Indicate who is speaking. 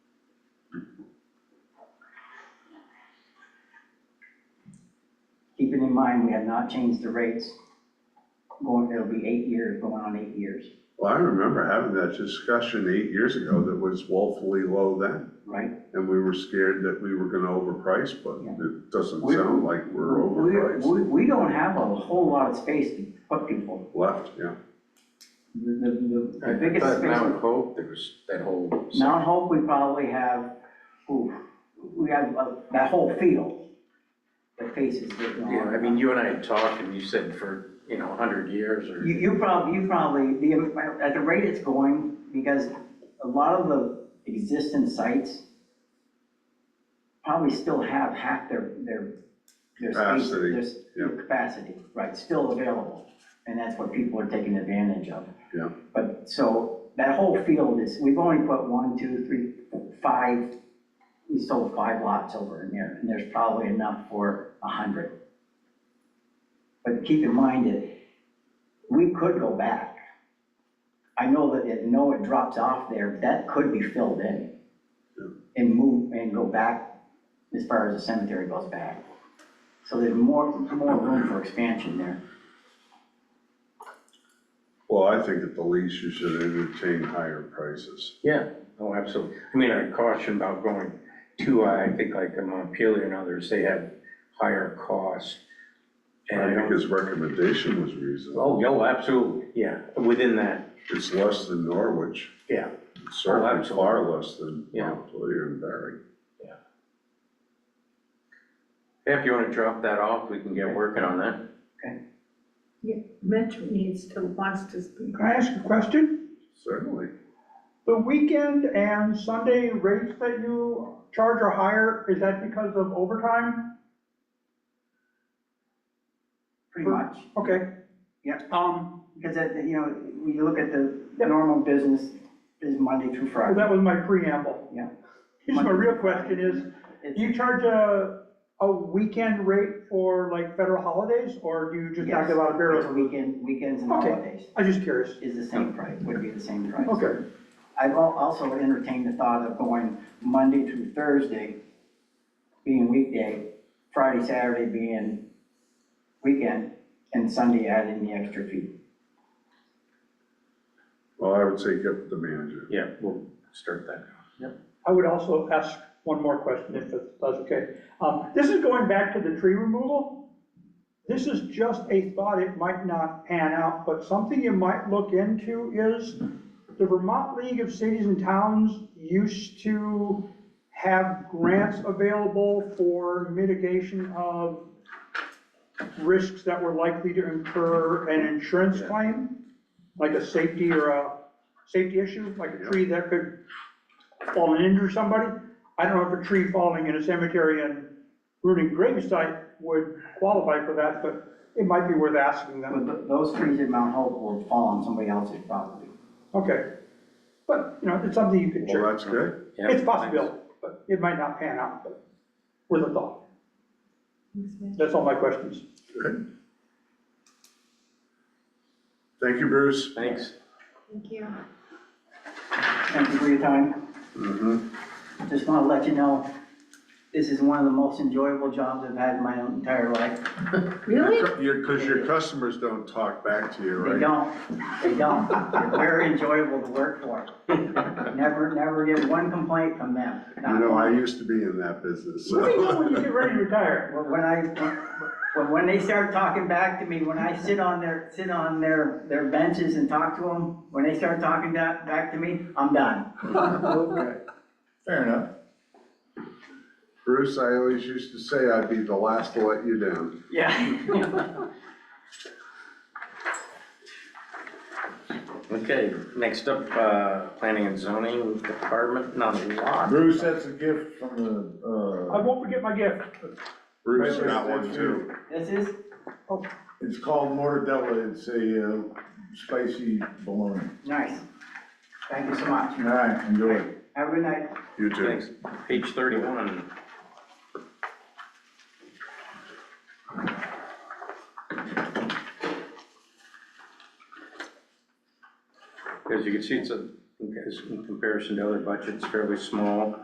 Speaker 1: in mind, we have not changed the rates. Going, it'll be eight years, going on eight years,
Speaker 2: Well, I remember having that discussion eight years ago that was woefully low then.
Speaker 1: right?
Speaker 2: And we were scared that we were gonna overprice, but
Speaker 1: Yeah.
Speaker 2: it doesn't
Speaker 1: We-
Speaker 2: sound like we're
Speaker 1: We-
Speaker 2: overpriced.
Speaker 1: We, we don't have a whole lot of space to put people.
Speaker 2: Left, yeah.
Speaker 1: The, the, the- the
Speaker 3: I
Speaker 1: biggest
Speaker 3: thought
Speaker 1: space.
Speaker 3: Mount Hope, there was that whole.
Speaker 1: Mount Hope, we probably have, ooh, we have uh, that whole field that faces the.
Speaker 3: Yeah, I mean, you and I had talked and you said for, you know, a hundred years or.
Speaker 1: You, you probably, you probably, the, at the rate it's going, because a lot of the existing sites probably still have half their, their, their space,
Speaker 2: Capacity,
Speaker 1: their s-
Speaker 2: yeah.
Speaker 1: their capacity, right, still available. And that's what people are taking advantage of.
Speaker 2: Yeah.
Speaker 1: But, so, that whole field is, we've only put one, two, three, five, we sold five lots over in there, and there's probably enough for a hundred. But keep in mind that we could go back. I know that, it no, it drops off there, that could be filled in.
Speaker 2: Yeah.
Speaker 1: And move, and go back as far as the cemetery goes back. So there's more, more room for expansion there.
Speaker 2: Well, I think at the least you should entertain higher prices.
Speaker 3: Yeah, oh, absolutely. I mean, I caution about going too high. I think like in Montpelier and others, they have higher costs. And
Speaker 2: I
Speaker 3: I
Speaker 2: think
Speaker 3: don't,
Speaker 2: his recommendation was reasonable.
Speaker 3: oh, no, absolutely, yeah, within that,
Speaker 2: It's less than Norwich,
Speaker 3: yeah. Oh,
Speaker 2: It's certainly
Speaker 3: absolutely.
Speaker 2: far less than
Speaker 3: Yeah.
Speaker 2: Montpelier and Barry.
Speaker 3: If you wanna drop that off, we can get working on that.
Speaker 4: Mitch needs to, wants to speak.
Speaker 5: Can I ask a question?
Speaker 2: Certainly.
Speaker 5: The weekend and Sunday rates that you charge are higher, is that because of overtime?
Speaker 1: Pretty much,
Speaker 5: Okay.
Speaker 1: Yeah.
Speaker 5: Um,
Speaker 1: because that, you know, when you look at the normal business, is Monday through
Speaker 5: well,
Speaker 1: Friday.
Speaker 5: that was my preamble.
Speaker 1: Yeah.
Speaker 5: Here's my real question is,
Speaker 1: It's-
Speaker 5: do you charge a, a weekend rate for like federal holidays, or do you just knock
Speaker 1: Yes,
Speaker 5: it out of
Speaker 1: it's
Speaker 5: barrel?
Speaker 1: Weekend, weekends and
Speaker 5: Okay.
Speaker 1: holidays
Speaker 5: I'm just curious.
Speaker 1: is the same price, would be the same price.
Speaker 5: Okay.
Speaker 1: I've al- also entertained the thought of going Monday through Thursday being weekday, Friday, Saturday being weekend, and Sunday adding the extra fee.
Speaker 2: Well, I would say get the manager.
Speaker 3: Yeah, we'll start that.
Speaker 5: I would also ask one more question if that's okay. Um, this is going back to the tree removal. This is just a thought, it might not pan out, but something you might look into is the Vermont League of Cities and Towns used to have grants available for mitigation of risks that were likely to incur an insurance
Speaker 3: Yeah.
Speaker 5: claim, like a safety or a safety issue, like a tree that could falling into somebody. I don't know if a tree falling in a cemetery and ruining gravesite would qualify for that, but it might be worth asking them.
Speaker 1: But th- those trees at Mount Hope will fall on somebody else's property.
Speaker 5: Okay. But, you know, it's something you could
Speaker 2: Well,
Speaker 5: check.
Speaker 2: that's good.
Speaker 3: Yeah,
Speaker 5: It's possible, but it might not pan out, but with a thought. That's all my questions.
Speaker 2: Good. Thank you, Bruce.
Speaker 3: Thanks.
Speaker 4: Thank you.
Speaker 1: Thank you for your time.
Speaker 2: Mm-hmm.
Speaker 1: Just want to let you know, this is one of the most enjoyable jobs I've had in my entire life.
Speaker 4: Really?
Speaker 2: Your, because your customers don't talk back to you,
Speaker 1: They
Speaker 2: right?
Speaker 1: don't, they don't. They're very enjoyable to work for. Never, never get one complaint from them. not
Speaker 2: You know, I
Speaker 1: one.
Speaker 2: used to be in that business,
Speaker 5: Let me
Speaker 2: so.
Speaker 5: know when you get ready to retire.
Speaker 1: Well, When I, when, when they start talking back to me, when I sit on their, sit on their, their benches and talk to them, when they start talking that, back to me, I'm done.
Speaker 2: Okay, fair enough. Bruce, I always used to say I'd be the last to let you down.
Speaker 3: Yeah. Okay, next up, uh, planning and zoning department, not a lot.
Speaker 6: Bruce, that's a gift from the,
Speaker 5: I
Speaker 6: uh,
Speaker 5: won't forget my gift.
Speaker 2: Bruce got one too.
Speaker 1: This is,
Speaker 6: it's called mortadella, it's a uh, spicy bologna.
Speaker 1: nice. Thank you so much.
Speaker 6: All right, enjoy it.
Speaker 1: Have a good night.
Speaker 2: You too.
Speaker 3: Thanks. Page thirty-one. As you can see, it's a, in comparison to other budgets, fairly small.